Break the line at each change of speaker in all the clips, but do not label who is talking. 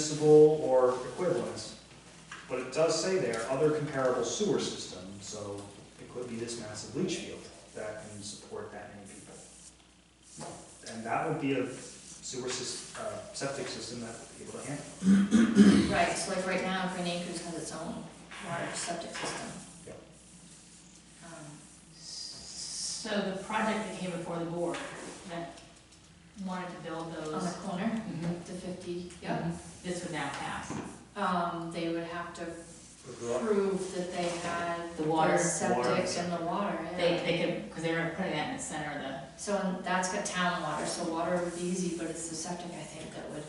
municipal or equivalents. But it does say there, other comparable sewer system, so it could be this massive leach field that can support that many people. And that would be a sewer sys, uh, septic system that would be able to handle.
Right, so like right now, Green Acres has its own water septic system.
Yep.
Um,
So the project that came before the board that wanted to build
On the
those,
corner, the fifty, yep,
Mm-hmm. this would now pass.
um, they would have to
But we're-
prove that they had.
The water.
their Septic and the water,
They,
yeah.
they could, because they were putting that in the center of the,
So and that's got town water, so water would be easy, but it's the septic, I think, that would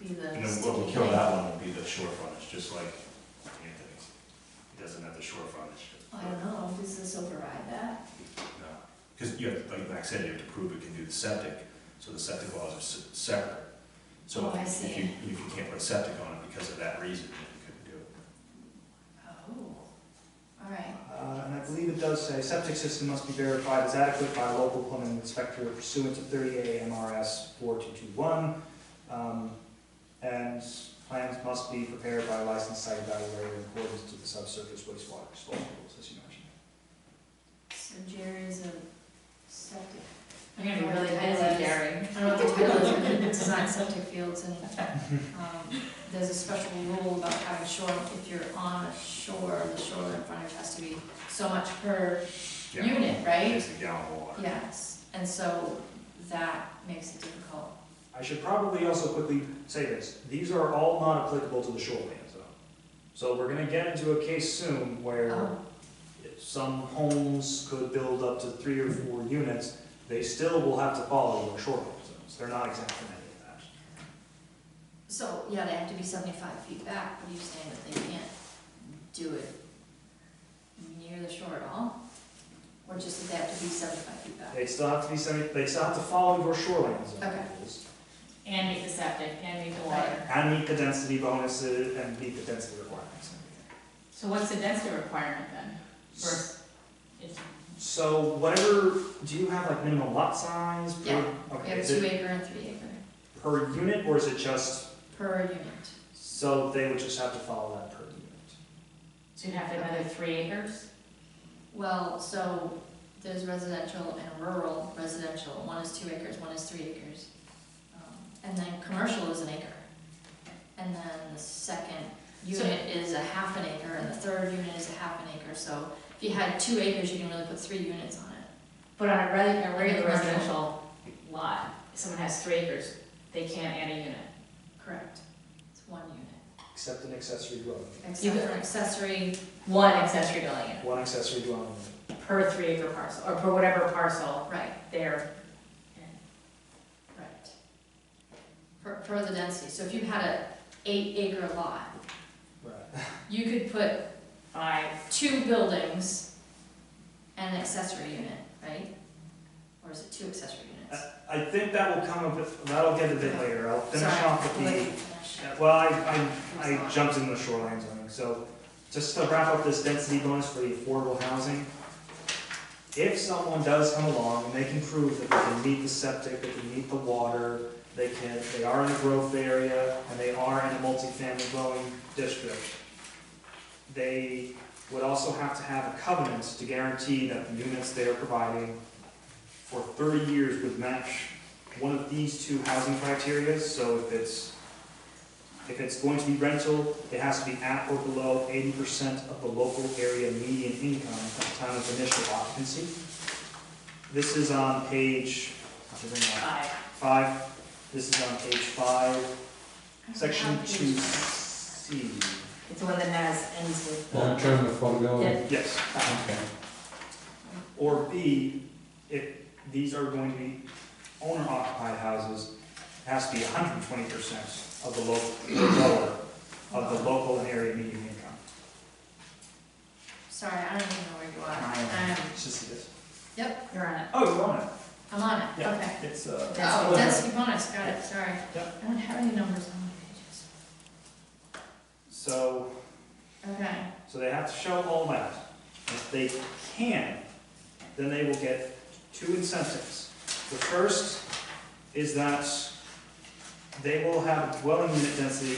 be the
And then what
sticky
will kill
thing.
that one would be the shore frontage, just like Anthony's. He doesn't have the shore frontage.
I don't know, does this override that?
Because you have, like Max said, you have to prove it can do the septic, so the septic laws are se- separate. So
Oh, I
if
see.
you, if you can't put a septic on it because of that reason, then you couldn't do it.
Oh, all right,
Uh, and I believe it does say septic system must be verified as adequate by a local plumbing inspector pursuant to 38 MRS 4221. Um, and plans must be prepared by a licensed site evaluator in accordance to the subsurface wastewater disposal rules, as you mentioned.
so Jerry's a septic.
you're gonna be really busy, Gary.
I don't know what the title is, but it's design septic fields and, um, there's a special rule about having shore, if you're on a shore, the shoreline frontage has to be so much per
Yeah.
unit, right?
It's a gallon of water.
Yes, and so that makes it difficult.
I should probably also quickly say this, these are all not applicable to the shoreline zone. So we're gonna get into a case soon where
Oh,
some homes could build up to three or four units, they still will have to follow the shoreline zones, they're not exempt from any of that.
So, yeah, they have to be seventy-five feet back, but you're saying that they can't do it near the shore at all? Or just that they have to be seventy-five feet back?
They still have to be semi, they still have to follow your shoreline zone
Okay.
rules.
And meet the septic, and meet the water.
And meet the density bonuses and meet the density requirements.
So what's the density requirement then? For, it's,
So whatever, do you have like minimum lot size? per-
Yeah. We
Okay,
have
is
two
it
acre and three acre,
per unit or is it just,
per unit.
so they would just have to follow that per unit?
so you'd have to have another three acres?
Well, so there's residential and rural residential, one is two acres, one is three acres. Um, And then commercial is an acre. And then the second
So-
unit is a half an acre, and the third unit is a half an acre, so if you had two acres, you can really put three units on it.
But on a re- a regular
Commercial.
residential lot, if someone has three acres, they can't add a unit.
Correct. It's one unit,
Except an accessory dwelling,
except for accessory,
One accessory dwelling unit
one accessory dwelling.
per three acre parcel, or per whatever parcel
right,
there.
right. For, for the density, so if you had a eight acre lot,
Right.
you could put
Five,
two buildings and an accessory unit, right? Or is it two accessory units?
I think that will come a bit, that'll get a bit later, I'll Uh, finish
Sorry,
off with the.
let me finish.
Yeah, Well, I, I, I jumped in the shoreline zoning, so just to wrap up this density bonus for the affordable housing. If someone does come along and they can prove that they can meet the septic, they can meet the water, they can, they are in a growth area, and they are in a multifamily dwelling district, they would also have to have a covenant to guarantee that the units they are providing for thirty years would match one of these two housing criteria, so if it's if it's going to be rental, it has to be at or below eighty percent of the local area median income at the time of initial occupancy. This is on page, I have to bring that up,
five.
five, this is on page five,
I don't
section
have
two
these.
C.
It's the one that has, ends with.
Long term affordability.
Yeah.
Yes,
Okay.
or B, if these are going to be owner occupied houses, it has to be hundred and twenty percent of the local, lower, of the local and area median income.
Sorry, I don't even know where you are.
Um,
Um,
It's just this.
yep,
You're on it.
Oh, you want it?
I'm on it,
Yeah.
okay.
It's, uh.
Oh, density bonus, got it, sorry.
Yep.
I don't have any numbers on my
So,
pages. Okay,
so they have to show all that. If they can, then they will get two incentives. The first is that they will have dwelling unit density